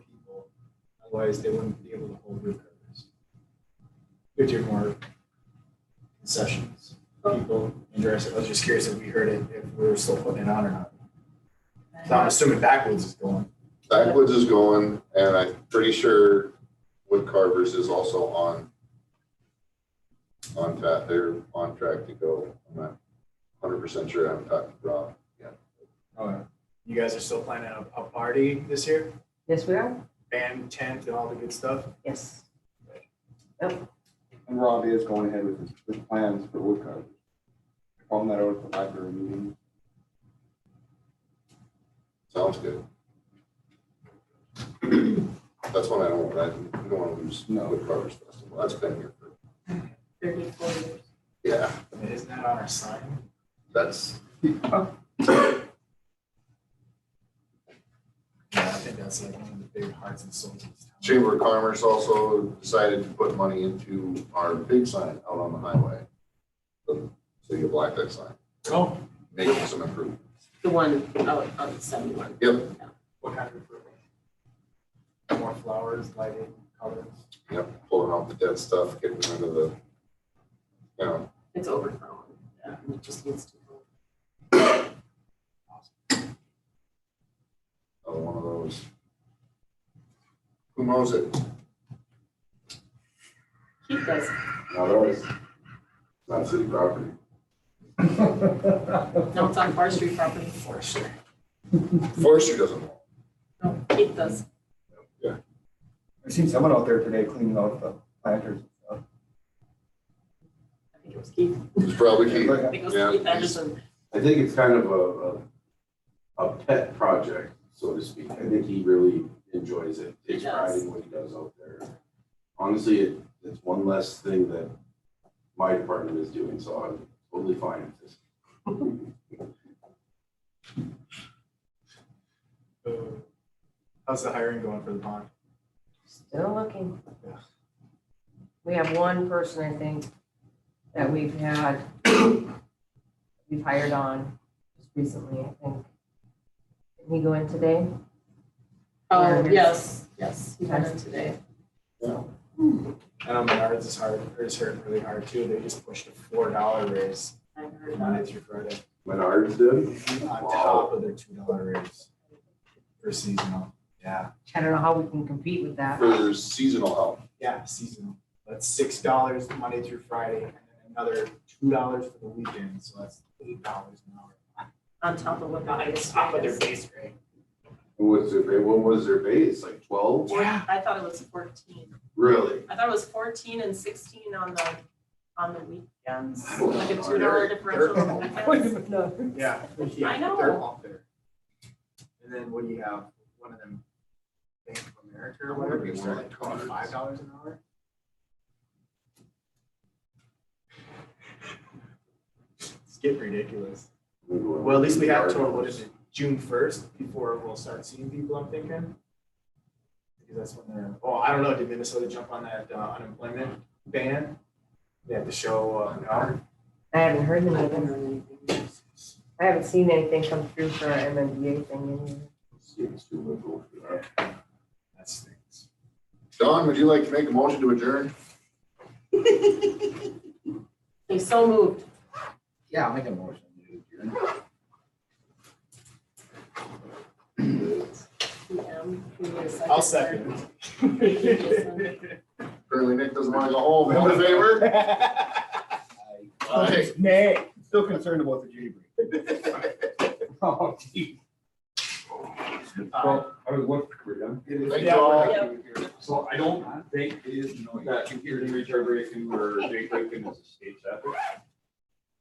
Otherwise, they wouldn't be able to hold root covers. Good to more concessions, people interested. I was just curious if we heard it, if we were still putting it on or not. So I'm assuming backwoods is going. Backwoods is going, and I'm pretty sure Wood Carvers is also on. On track, they're on track to go. I'm not hundred percent sure. I haven't talked to Rob. Oh, yeah. You guys are still planning a, a party this year? Yes, we are. Band, tent, and all the good stuff? Yes. And Rob is going ahead with his, with plans for wood carving. Call him that over at the library meeting. Sounds good. That's one I don't, want. I don't want to lose No. Wood Carvers Festival. That's been here for, Thirty-four years. yeah, I mean, Isn't that on our sign? that's, Yeah, I think that's like one of the big hearts and souls of this town. Chamber of Commerce also decided to put money into our big sign out on the highway. So you black that sign, Oh, making some improvement. The one out on seventy-one. Yep, what kind of improvement? More flowers, lighting, colors? yep, pulling out the dead stuff, getting rid of the, you know, It's overgrown. Yeah, It just needs to. go. uh, one of those. Who mows it? Keith does. Not always. Not city property. No, it's on forestry property. Forestry. Forestry doesn't mow. No, Keith does. I've seen someone out there today cleaning out the planters and stuff. I think it was Keith. It's probably key. I uh, think it was Yeah. Keith Anderson. I think it's kind of a, a, a pet project, so to speak. I think he really enjoys it, He takes does. pride in what he does out there. Honestly, it, it's one less thing that my department is doing, so I'm totally fine with this. So, How's the hiring going for the pond? Still looking. Yeah. We have one person, I think, that we've had, we've hired on just recently, I think. Did he go in today? Oh, Anderson. yes, yes, he had it today. I know Menards is hard, is hurting really hard too. They just pushed a four dollar raise I heard that. Monday through Friday Menards did, on top of their two dollar raise for seasonal. Yeah, I don't know how we can compete with that. For seasonal help. yeah, seasonal. That's six dollars Monday through Friday and then another two dollars for the weekend. So that's eight dollars an hour. On top of what the highest Top of rate their is. base rate. what was their, ba- what was their base, like twelve? Yeah. I thought it was fourteen. Really? I thought it was fourteen and sixteen on the, on the weekends. I don't Like a know. two dollar differential. They're- I Wait a guess. minute, no. Yeah. I know. They're all there. And then what do you have? One of them Bank of America or whatever, Maybe it's one like of the cards. twenty-five dollars an hour. It's getting ridiculous. Well, at least we have till, what is it, June first before we'll start seeing people, I'm thinking? Because that's when they're, oh, I don't know, did Minnesota jump on that uh, unemployment ban? They have to show uh, an hour. I haven't heard I haven't anything. heard anything. I haven't seen anything come through for our MMDA thing. either. Seems too liberal for that. That stinks. Don, would you like to make a motion to adjourn? They so moved. Yeah, I'll make a motion. PM. We need a second. I'll second. Apparently Nick doesn't want to go home. All in favor? Aye. Nay, still concerned about the Judy break. Oh, geez. Uh, Well, I was looking for them. Thank you all. So I don't think it is, that computer reverberation or date breaking is a state effort.